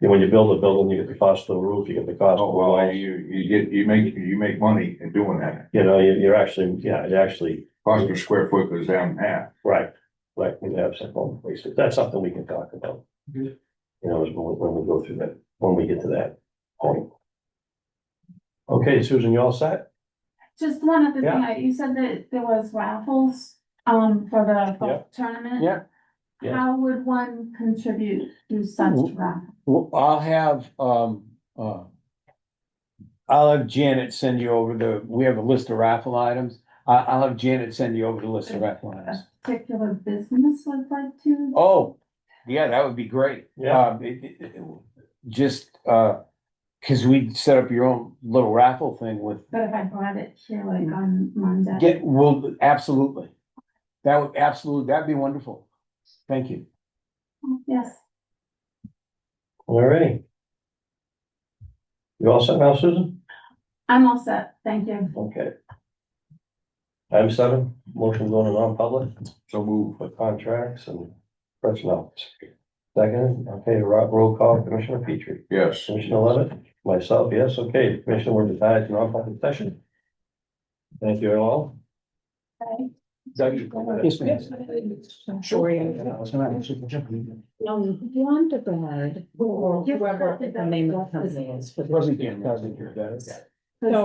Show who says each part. Speaker 1: And when you build a building, you get the cost of the roof, you get the cost of
Speaker 2: Oh,
Speaker 1: the
Speaker 2: well,
Speaker 1: walls.
Speaker 2: you, you get, you make, you make money in doing that.
Speaker 1: You know, you- you're actually, yeah, it actually,
Speaker 2: Cost per square foot goes down in half.
Speaker 1: right, right, we have some home places. That's something we can talk about.
Speaker 2: Mhm.
Speaker 1: You know, is when when we go through that, when we get to that point. Okay, Susan, you all set?
Speaker 3: Just one other thing,
Speaker 1: Yeah.
Speaker 3: I- you said that there was raffles, um, for the golf tournament.
Speaker 4: Yeah.
Speaker 1: Yeah.
Speaker 3: How would one contribute to such
Speaker 4: Mm.
Speaker 3: raffle?
Speaker 4: Well, I'll have, um, uh. I'll have Janet send you over the, we have a list of raffle items. I, I'll have Janet send you over the list of raffle items.
Speaker 3: A particular business would like to?
Speaker 4: Oh, yeah, that would be great.
Speaker 1: Yeah.
Speaker 4: Um, it- it- it- Just, uh, cause we set up your own little raffle thing with,
Speaker 3: But if I brought it here like on Monday?
Speaker 4: get, well, absolutely. That would, absolutely, that'd be wonderful. Thank you.
Speaker 3: Yes,
Speaker 1: All righty. You all set now, Susan?
Speaker 3: I'm all set, thank you.
Speaker 1: Okay. Item seven, motion going to non-public
Speaker 2: So move.
Speaker 1: for contracts and personnel. Second, okay, Rob, roll call, Commissioner Petrie.
Speaker 2: Yes.
Speaker 1: Commissioner Levitt, myself, yes, okay, Commissioner, we're retired to non-public session. Thank you all.
Speaker 3: Okay.
Speaker 1: Doug, you go ahead.
Speaker 4: Yes, ma'am.
Speaker 5: Sure, No, Wonderbird, or whoever the name of the company is.
Speaker 4: Wasn't Jan, wasn't your dad?